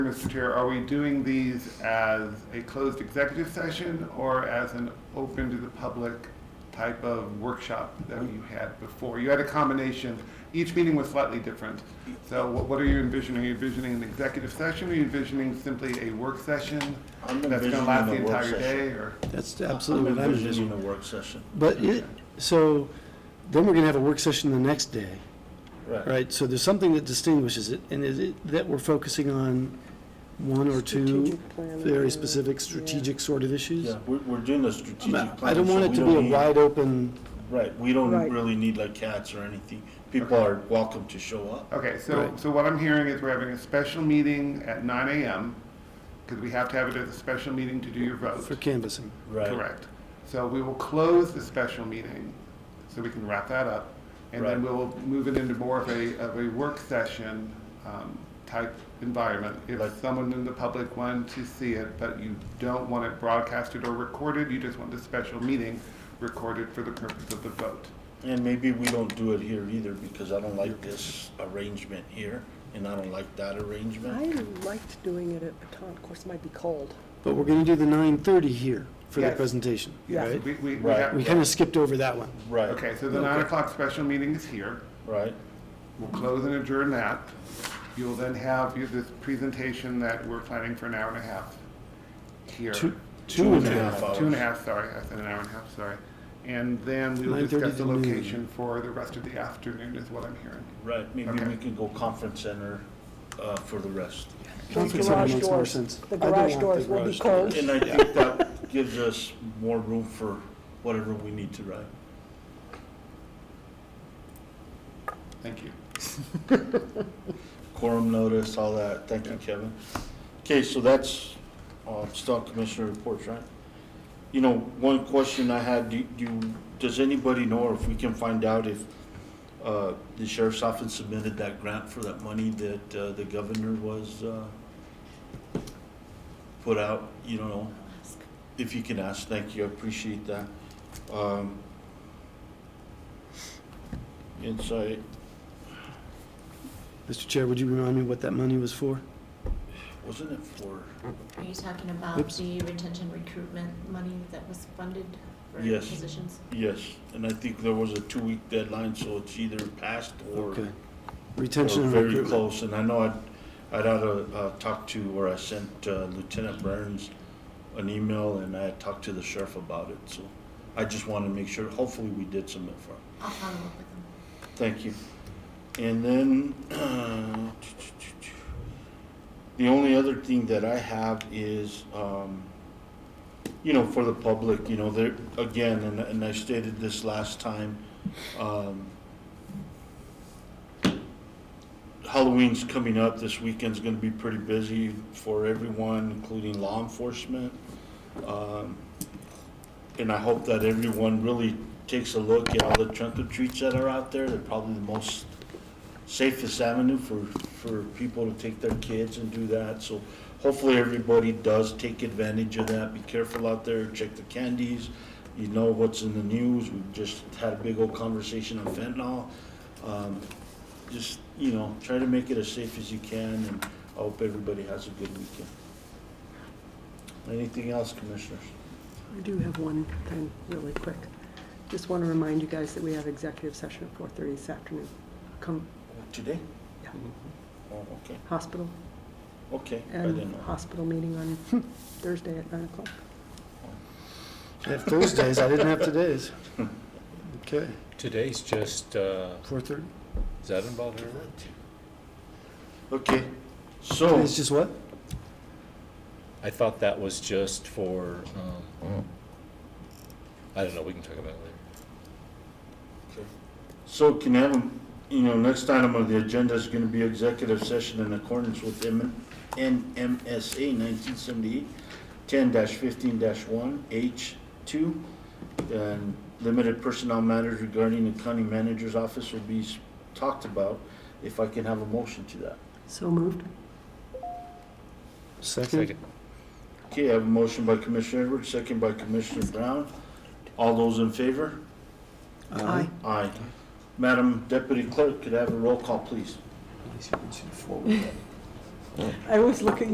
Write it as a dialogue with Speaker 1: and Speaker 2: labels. Speaker 1: Mr. Chair, are we doing these as a closed executive session or as an open to the public type of workshop that you had before? You had a combination, each meeting was slightly different. So what what are you envisioning? Are you envisioning an executive session? Are you envisioning simply a work session?
Speaker 2: I'm
Speaker 1: That's going to
Speaker 2: envisioning
Speaker 1: last the
Speaker 2: a work
Speaker 1: entire
Speaker 2: session.
Speaker 1: day or?
Speaker 3: That's absolutely
Speaker 2: I'm
Speaker 3: what I'm
Speaker 2: envisioning a
Speaker 3: envisioning.
Speaker 2: work session.
Speaker 3: But it, so, then we're gonna have a work session the next day,
Speaker 2: Right.
Speaker 3: right? So there's something that distinguishes it, and is it, that we're focusing on one or two
Speaker 4: Strategic plan,
Speaker 3: very
Speaker 4: yeah.
Speaker 3: strategic, strategic sort of issues?
Speaker 2: Yeah, we're, we're doing a strategic plan.
Speaker 3: I don't want
Speaker 2: so
Speaker 3: it
Speaker 2: we
Speaker 3: to be a
Speaker 2: need-
Speaker 3: wide open,
Speaker 2: Right, we don't
Speaker 4: Right.
Speaker 2: really need like cats or anything. People are welcome to show up.
Speaker 1: Okay, so,
Speaker 3: Right.
Speaker 1: so what I'm hearing is we're having a special meeting at nine AM, because we have to have it as a special meeting to do your vote.
Speaker 3: for canvassing.
Speaker 2: Right.
Speaker 1: Correct. So we will close the special meeting, so we can wrap that up. And then
Speaker 2: Right.
Speaker 1: we'll move it into more of a, of a work session um, type environment. If
Speaker 2: Like-
Speaker 1: someone in the public wanted to see it, but you don't want it broadcasted or recorded, you just want the special meeting recorded for the purpose of the vote.
Speaker 2: And maybe we don't do it here either because I don't like this arrangement here and I don't like that
Speaker 4: I
Speaker 2: arrangement.
Speaker 4: liked doing it at Baton, of course, it might be cold.
Speaker 3: But we're gonna do the nine thirty here for the
Speaker 1: Yes.
Speaker 3: presentation,
Speaker 4: Yeah.
Speaker 3: right?
Speaker 1: We, we, we
Speaker 2: Right.
Speaker 1: have.
Speaker 3: We kinda skipped over that one.
Speaker 2: Right,
Speaker 1: Okay, so the nine o'clock special meeting is here.
Speaker 2: right,
Speaker 1: We'll close and adjourn that. You'll then have your- this presentation that we're planning for an hour and a half here.
Speaker 3: Two, two and a half.
Speaker 2: half
Speaker 1: Two and a
Speaker 2: hours.
Speaker 1: half, sorry, I said an hour and a half, sorry. And then we will
Speaker 3: 9:30
Speaker 1: discuss the
Speaker 3: to noon.
Speaker 1: location for the rest of the afternoon is what I'm hearing.
Speaker 2: right. Maybe
Speaker 1: Okay.
Speaker 2: we can go conference center, uh, for the rest.
Speaker 3: Conference
Speaker 4: Those
Speaker 3: center
Speaker 4: garage
Speaker 3: makes more
Speaker 4: doors-
Speaker 3: sense.
Speaker 4: The
Speaker 3: I don't
Speaker 4: garage
Speaker 3: want
Speaker 4: doors
Speaker 3: the
Speaker 4: will be
Speaker 3: garage
Speaker 4: cold.
Speaker 2: And I think that gives us more room for whatever we need to write.
Speaker 1: Thank you.
Speaker 2: quorum notice, all that. Thank you, Kevin. Okay, so that's, uh, still commissioner reports, right? You know, one question I had, do, do, does anybody know, or if we can find out if, uh, the sheriff's office submitted that grant for that money that, uh, the governor was, uh, put out, you don't know? If you can ask, thank you, I appreciate that. Um, insight,
Speaker 3: Mr. Chair, would you remind me what that money was for?
Speaker 2: wasn't it for?
Speaker 5: Are you talking about
Speaker 3: Oops.
Speaker 5: the retention recruitment money that was funded for
Speaker 2: Yes.
Speaker 5: positions?
Speaker 2: Yes, and I think there was a two-week deadline, so it's either passed or
Speaker 3: Okay.
Speaker 2: or
Speaker 3: Retention and
Speaker 2: very
Speaker 3: recruitment.
Speaker 2: close. And I know I'd, I'd had a, uh, talked to, or I sent uh, Lieutenant Burns an email, and I had talked to the sheriff about it, so I just wanted to make sure, hopefully we did submit for it.
Speaker 5: I'll follow up with them.
Speaker 2: Thank you. And then, the only other thing that I have is, um, you know, for the public, you know, there, again, and, and I stated this last time, um, Halloween's coming up, this weekend's gonna be pretty busy for everyone, including law enforcement. Um, and I hope that everyone really takes a look at all the trunk or treats that are out there. They're probably the most safest avenue for, for people to take their kids and do that. So hopefully everybody does take advantage of that. Be careful out there, check the candies. You know what's in the news. We just had a big old conversation on fentanyl. Um, just, you know, try to make it as safe as you can and I hope everybody has a good weekend. Anything else, commissioners?
Speaker 4: I do have one thing really quick. Just want to remind you guys that we have executive session at 4:30 this afternoon. Come,
Speaker 2: Today?
Speaker 4: Yeah.
Speaker 2: Oh, okay,
Speaker 4: hospital,
Speaker 2: okay. I didn't
Speaker 4: and
Speaker 2: know.
Speaker 4: hospital meeting
Speaker 3: Hmm.
Speaker 4: on Thursday at 9 o'clock.
Speaker 3: I have Thursdays, I didn't have today's. Okay,
Speaker 6: Today's just, uh,
Speaker 3: four thirty.
Speaker 6: is that involved or not?
Speaker 2: Okay, so,
Speaker 3: Today's just what?
Speaker 6: I thought that was just for, um, I don't know, we can talk about it later.
Speaker 2: so can I have, a- you know, next item on the agenda is gonna be executive session in accordance with M, NMSA nineteen seventy-eight, ten fifteen one, H two. And limited personnel matters regarding the county manager's office will be s- talked about, if I can have a motion to that.
Speaker 4: So moved.
Speaker 3: Second?
Speaker 6: Second.
Speaker 2: Okay, I have a motion by Commissioner Edwards, second by Commissioner Brown. All those in favor?
Speaker 4: Aye.
Speaker 2: Aye. Madam Deputy Clerk, could I have a roll call, please?
Speaker 4: I always look at